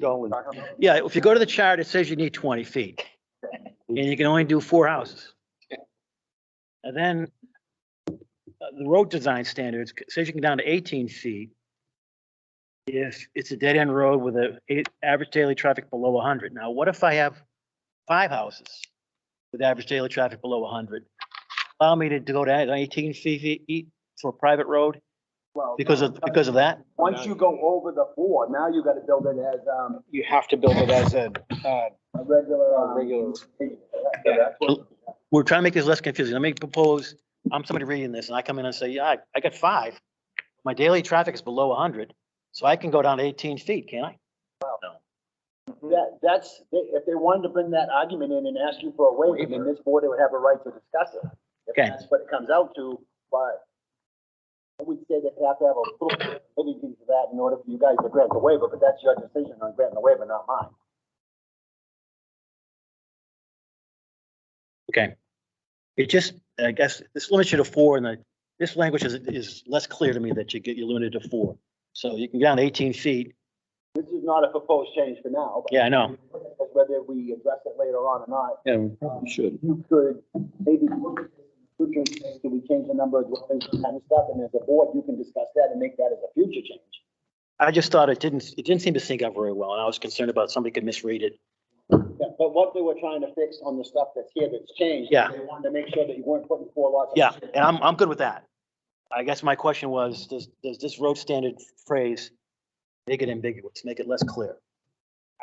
Dolan. Yeah, if you go to the chart, it says you need twenty feet. And you can only do four houses. And then uh, the road design standards says you can down to eighteen feet. If it's a dead end road with a eight- average daily traffic below hundred. Now, what if I have five houses with average daily traffic below hundred? Allow me to go to eighteen feet feet for a private road Well, uh, because of, because of that? Once you go over the four, now you gotta build it as, um, You have to build it as a, uh, a regular, um. regular. Yeah, that's we're trying to make this less confusing. Let me propose, I'm somebody reading this and I come in and say, yeah, I, I got five. My daily traffic is below hundred, so I can go down to eighteen feet, can I? what- That, that's, they- if they wanted to bring that argument in and ask you for a waiver, then this board would have a right to discuss it. If Okay. That's what it comes out to, but I would say that they have to have a little bit of anything to that in order for you guys to grant the waiver, but that's your decision on granting the waiver, not mine. Okay. It just, I guess, this limits you to four and the, this language is, is less clear to me that you get, you're limited to four. So you can get down to eighteen feet. This is not a proposed change for now. but Yeah, I know. Because whether we address it later on or not, Yeah, we probably should. you could maybe, future, change, do we change the number of dwellings and kind of stuff? And as a board, you can discuss that and make that as a future change. I just thought it didn't, it didn't seem to sync up very well and I was concerned about somebody could misread it. Yeah, But what they were trying to fix on the stuff that's here that's changed. Yeah. They wanted to make sure that you weren't putting four lots. on Yeah, and I'm, I'm good with that. I guess my question was, does, does this road standard phrase make it ambiguous, make it less clear?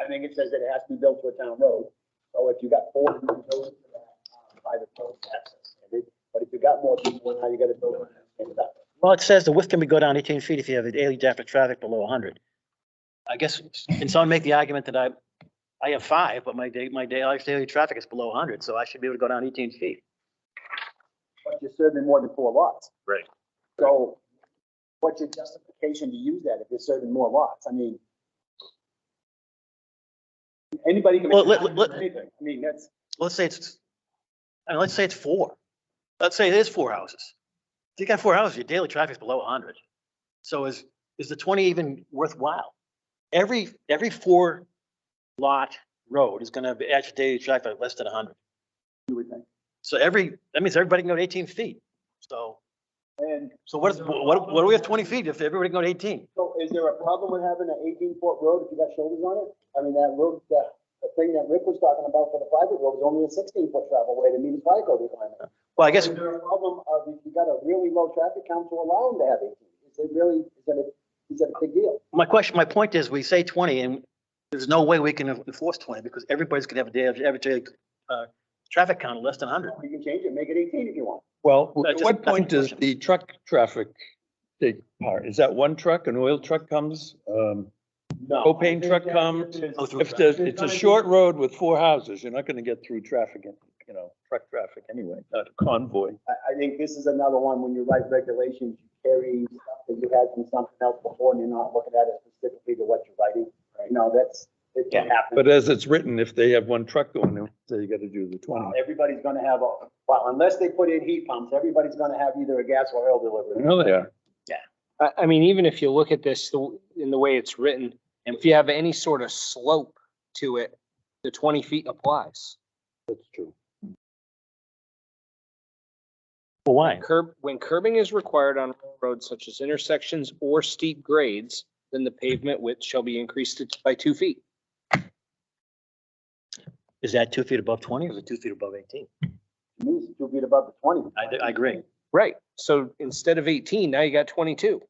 I think it says that it has to be built to a town road. So if you got four, you can build it to that, uh, private road access. But if you got more people, now you gotta build it. and stuff. Well, it says the width can be go down eighteen feet if you have a daily depth of traffic below hundred. I guess, can someone make the argument that I, I have five, but my day, my daily, daily traffic is below hundred, so I should be able to go down eighteen feet? But you're serving more than four lots. Right. So what's your justification to use that if you're serving more lots? I mean, anybody can. make Well, an let- argument let- for anything. I mean, that's, Let's say it's, I mean, let's say it's four. Let's say it is four houses. If you got four houses, your daily traffic is below hundred. So is, is the twenty even worthwhile? Every, every four lot road is gonna have average daily traffic of less than hundred. you would think. So every, that means everybody can go to eighteen feet. So, And so what is, what, what do we have twenty feet if everybody can go to eighteen? So is there a problem with having an eighteen foot road if you got shoulders on it? I mean, that road, that, the thing that Rick was talking about for the private road is only a sixteen foot travel way to meet his bike code requirement. Well, I guess, Is there a problem of if you got a really low traffic count to allow him to have eighteen? Is it really, is that a, is that a big deal? my question, my point is, we say twenty and there's no way we can enforce twenty because everybody's gonna have a daily, average daily, uh, traffic count of less than hundred. You can change it, make it eighteen if you want. Well, That's at just- what that's my point does question. the truck traffic take part? Is that one truck, an oil truck comes, um, No. propane truck comes? Go Oh, through If that. there's, it's a short road with four houses, you're not gonna get through traffic, in- you know, truck traffic anyway, not a convoy. I, I think this is another one, when you write regulations, you carry stuff that you had from something else before and you're not looking at it specifically to what you're writing. You know, that's, it can happen. But as it's written, if they have one truck going, they say you gotta do the Uh, twenty. Everybody's gonna have a, well, unless they put in heat pumps, everybody's gonna have either a gas or oil I delivery. know they are. I, I mean, even if you look at this the- in the way it's written, and if you have any sort of slope to it, the twenty feet applies. That's true. Well, why? Curb, when curbing is required on roads such as intersections or steep grades, then the pavement width shall be increased to- by two feet. Is that two feet above twenty or is it two feet above eighteen? To me, it's Two feet above the twenty. I, I agree. Right, so instead of eighteen, now you got twenty-two.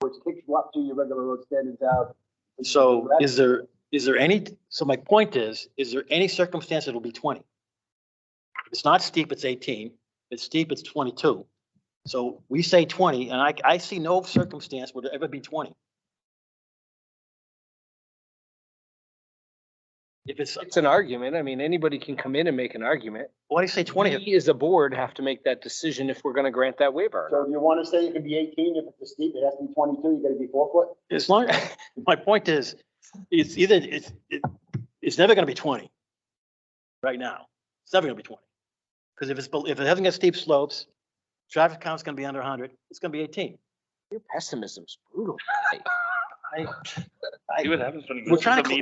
Which kicks you up to your regular road standards out. So is there, is there any, so my point is, is there any circumstance that will be twenty? It's not steep, it's eighteen. It's steep, it's twenty-two. So we say twenty, and I, I see no circumstance would ever be twenty. If it's, It's an argument. I mean, anybody can come in and make an argument. why do you say twenty? We as a board have to make that decision if we're gonna grant that waiver. So do you wanna say it could be eighteen, if it's a steep, it has to be twenty-two, you gotta be four foot? As long, my point is, it's either, it's, it- it's never gonna be twenty. Right now, it's never gonna be twenty. Because if it's, bel- if it hasn't got steep slopes, traffic count's gonna be under hundred, it's gonna be eighteen. Your pessimism's brutal. I, See what happens when you We're listen trying to me.